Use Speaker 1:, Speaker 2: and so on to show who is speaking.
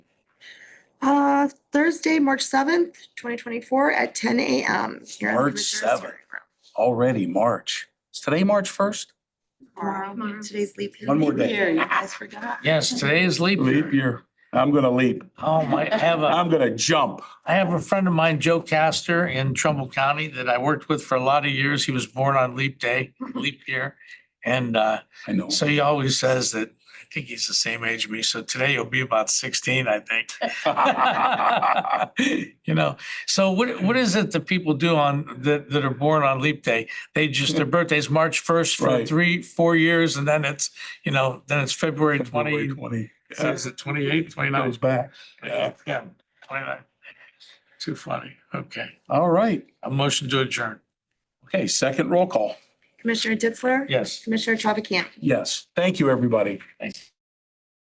Speaker 1: Uh, Thursday, March seventh, twenty twenty-four at ten AM. here at the
Speaker 2: March
Speaker 1: Commissioners'
Speaker 2: 7th.
Speaker 1: Hearing Room.
Speaker 2: Already March. Is today March first?
Speaker 1: Tomorrow, today's leap. year.
Speaker 2: One more day.
Speaker 3: Here, you guys forgot.
Speaker 4: Yes, today is leap
Speaker 2: Leap
Speaker 4: year.
Speaker 2: year. I'm gonna leap.
Speaker 4: Oh, my, I have a,
Speaker 2: I'm gonna jump.
Speaker 4: I have a friend of mine, Joe Castor in Trumbull County that I worked with for a lot of years. He was born on leap day, leap year. And, uh,
Speaker 2: I know.
Speaker 4: So he always says that, I think he's the same age as me, so today he'll be about sixteen, I think. You know, so what, what is it that people do on, that, that are born on leap day? They just, their birthday's March first for
Speaker 2: Right.
Speaker 4: three, four years, and then it's, you know, then it's February
Speaker 2: February
Speaker 4: twenty,
Speaker 2: Twenty. Yeah,
Speaker 4: is it twenty-eight, twenty-nine?
Speaker 2: Goes back. Yeah.
Speaker 4: Yeah, twenty-nine. Too funny, okay.
Speaker 2: All right.
Speaker 4: A motion to adjourn,
Speaker 2: Okay, second roll call.
Speaker 1: Commissioner Ditzler?
Speaker 4: yes.
Speaker 1: Commissioner Chavacan?
Speaker 2: Yes. Thank you, everybody.
Speaker 4: Thanks.